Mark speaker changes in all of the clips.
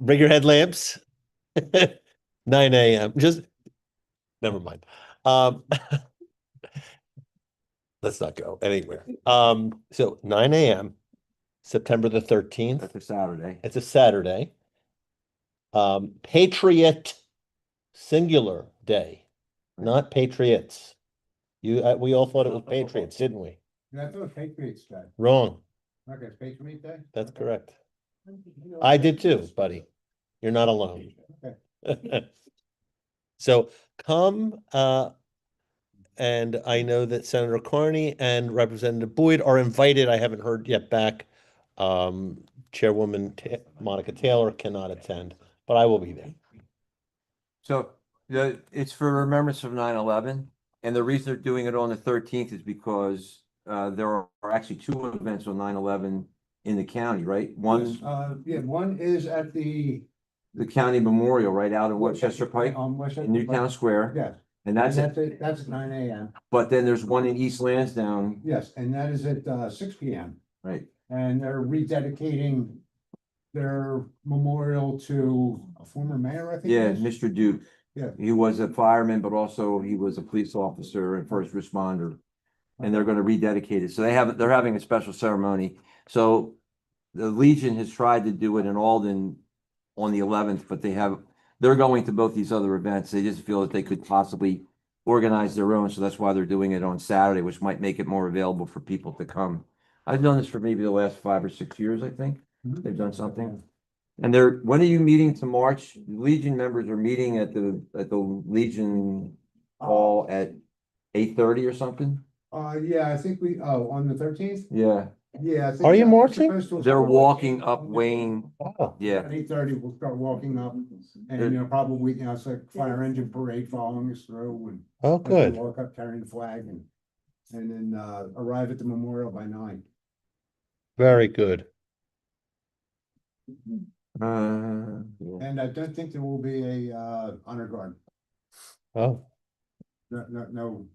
Speaker 1: bring your headlamps. Nine AM, just, never mind. Um. Let's not go anywhere. Um, so nine AM, September the thirteenth.
Speaker 2: That's a Saturday.
Speaker 1: It's a Saturday. Um, Patriot singular day, not patriots. You, uh, we all thought it was patriots, didn't we?
Speaker 3: And I thought Patriots Day,
Speaker 1: Wrong.
Speaker 3: okay, Patriot Day?
Speaker 1: That's
Speaker 3: Okay.
Speaker 1: correct. I did too, buddy. You're not alone.
Speaker 3: Okay.
Speaker 1: So come, uh, and I know that Senator Carney and Representative Boyd are invited. I haven't heard yet back. Um, Chairwoman Ta- Monica Taylor cannot attend, but I will be there.
Speaker 2: So the, it's for remembrance of 9/11, and the reason they're doing it on the thirteenth is because uh, there are actually two events on 9/11 in the county, right? One's
Speaker 3: Uh, yeah, one is at the.
Speaker 2: the county memorial right out in Westchester Pike,
Speaker 3: On Westchester.
Speaker 2: in Newtown Square,
Speaker 3: Yes,
Speaker 2: and
Speaker 3: and
Speaker 2: that's it.
Speaker 3: that's at, that's at nine AM,
Speaker 2: But then there's one in East Lansdowne,
Speaker 3: yes, and that is at, uh, six PM,
Speaker 2: right?
Speaker 3: and they're rededicating. Their memorial to a former mayor, I think. it
Speaker 2: Yeah,
Speaker 3: is.
Speaker 2: Mr. Duke.
Speaker 3: Yeah.
Speaker 2: He was a fireman, but also he was a police officer and first responder. And they're gonna rededicate it. So they have, they're having a special ceremony. So the Legion has tried to do it in Alden on the eleventh, but they have, they're going to both these other events. They just feel that they could possibly organize their own, so that's why they're doing it on Saturday, which might make it more available for people to come. I've done this for maybe the last five or six years, I think.
Speaker 3: Mhm.
Speaker 2: They've done something. And they're, when are you meeting to march? Legion members are meeting at the, at the Legion Hall at eight thirty or something?
Speaker 3: Uh, yeah, I think we, oh, on the thirteenth,
Speaker 2: Yeah,
Speaker 3: yeah. I think
Speaker 1: Are you
Speaker 3: that was
Speaker 1: marching?
Speaker 3: supposed to-
Speaker 2: they're walking up Wayne,
Speaker 1: Wow.
Speaker 2: yeah,
Speaker 3: At eight thirty, we'll start walking up, and
Speaker 2: Uh,
Speaker 3: you know, probably, you know, it's like fire engine parade following us through and.
Speaker 1: Oh,
Speaker 3: as we
Speaker 1: good.
Speaker 3: Walk up carrying the flag and, and then, uh, arrive at the memorial by nine.
Speaker 1: Very good.
Speaker 2: uh, yeah.
Speaker 3: And I don't think there will be a, uh, honor guard,
Speaker 1: Oh,
Speaker 3: no, no, no,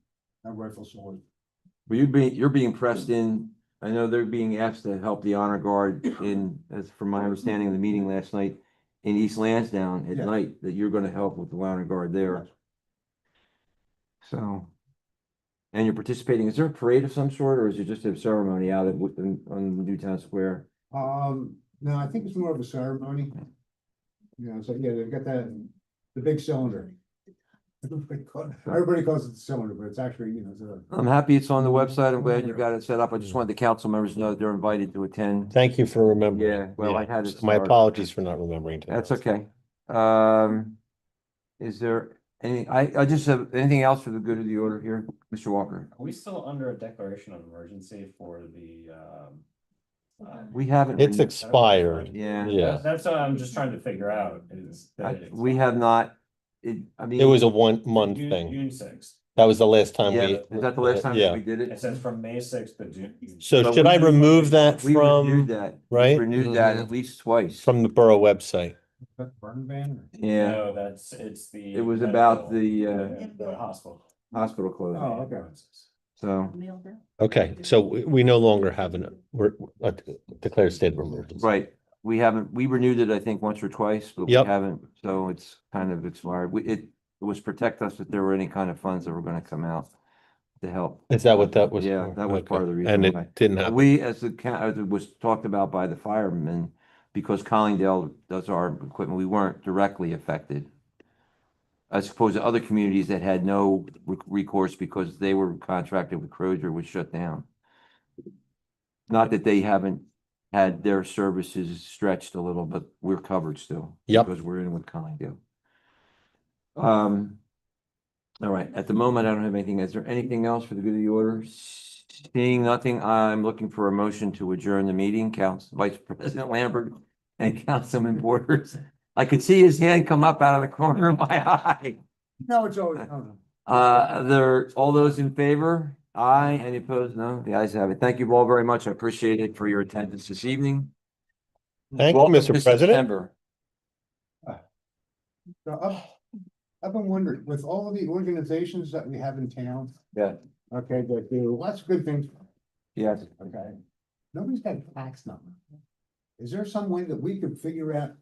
Speaker 3: no rifle salute.
Speaker 2: Well, you're being, you're being pressed in, I know they're being asked to help the honor guard in, as from my understanding of the meeting last night. In East Lansdowne at
Speaker 3: Yeah.
Speaker 2: night, that you're gonna help with the honor guard there, so. And you're participating, is there a parade of some sort, or is it just a ceremony out at, on, on Newtown Square?
Speaker 3: Um, no, I think it's more of a ceremony. You know, so, yeah, they've got that, the big cylinder. Everybody calls, everybody calls it the cylinder, but it's actually, you know, it's a.
Speaker 2: I'm happy it's on the website. I'm glad you got it set up. I just wanted the council members to know that they're invited to attend.
Speaker 1: thank you for remembering.
Speaker 2: Yeah, well, I had it
Speaker 1: My
Speaker 2: started.
Speaker 1: apologies for not remembering. to-
Speaker 2: That's okay. Um, is there any, I, I just have, anything else for the good of the order here, Mr. Walker?
Speaker 4: Are we still under a declaration of emergency for the, um? uh,
Speaker 2: We haven't.
Speaker 1: It's
Speaker 2: renewed-
Speaker 1: expired.
Speaker 2: Yeah,
Speaker 1: Yeah,
Speaker 4: That's what I'm just trying to figure out is. that
Speaker 2: I-
Speaker 4: it's-
Speaker 2: we have not, it, I mean.
Speaker 1: it was a one month
Speaker 4: June-
Speaker 1: thing.
Speaker 4: June sixth.
Speaker 1: That was the last time we.
Speaker 2: Yeah, is that the last time
Speaker 1: Yeah.
Speaker 2: we did
Speaker 4: It
Speaker 2: it?
Speaker 4: says from May sixth to June.
Speaker 1: So
Speaker 2: But
Speaker 1: should
Speaker 2: we
Speaker 1: I
Speaker 2: renewed-
Speaker 1: remove that
Speaker 2: We
Speaker 1: from,
Speaker 2: renewed that,
Speaker 1: right?
Speaker 2: renewed that at least twice.
Speaker 1: From the borough website.
Speaker 3: that burn ban
Speaker 2: Yeah,
Speaker 4: No, that's, it's the.
Speaker 2: It was about
Speaker 4: medical-
Speaker 2: the,
Speaker 5: uh,
Speaker 4: The hospital.
Speaker 2: hospital
Speaker 3: or-
Speaker 2: closed,
Speaker 3: Oh, okay.
Speaker 2: so,
Speaker 1: Okay, so we, we no longer have an, we're, uh, declared state of emergency.
Speaker 2: right. We haven't, we renewed it, I think, once or twice, but we
Speaker 1: Yep.
Speaker 2: haven't, so it's kind of expired. We, it was protect us if there were any kind of funds that were gonna come out to help.
Speaker 1: Is that what that was?
Speaker 2: Yeah,
Speaker 1: for?
Speaker 2: that was part of the
Speaker 1: Okay.
Speaker 2: reason
Speaker 1: And
Speaker 2: why.
Speaker 1: it didn't happen.
Speaker 2: We, as the, ca- as it was talked about by the firemen, because Collingdale does our equipment, we weren't directly affected. I suppose the other communities that had no re- recourse because they were contracted with Crozier was shut down. Not that they haven't had their services stretched a little, but we're covered still.
Speaker 1: Yep.
Speaker 2: Because we're in with Collingdale. Um, all right, at the moment, I don't have anything. Is there anything else for the good of the order? Seeing nothing, I'm looking for a motion to adjourn the meeting, Council Vice President Lambert and Councilman Borders. I could see his hand come up out of the corner of my eye.
Speaker 3: No, it's always, no, no.
Speaker 2: Uh, there, all those in favor? Aye, any opposed? No, the ayes have it. Thank you all very much. I appreciate it for your attendance this evening.
Speaker 1: Thank you,
Speaker 2: Welcome to
Speaker 1: Mr. President.
Speaker 2: September.
Speaker 3: So I've, I've been wondering, with all the organizations that we have in town.
Speaker 2: Yeah.
Speaker 3: Okay, that do lots of good things,
Speaker 2: Yes.
Speaker 3: okay? Nobody's got a fax number. Is there some way that we could figure out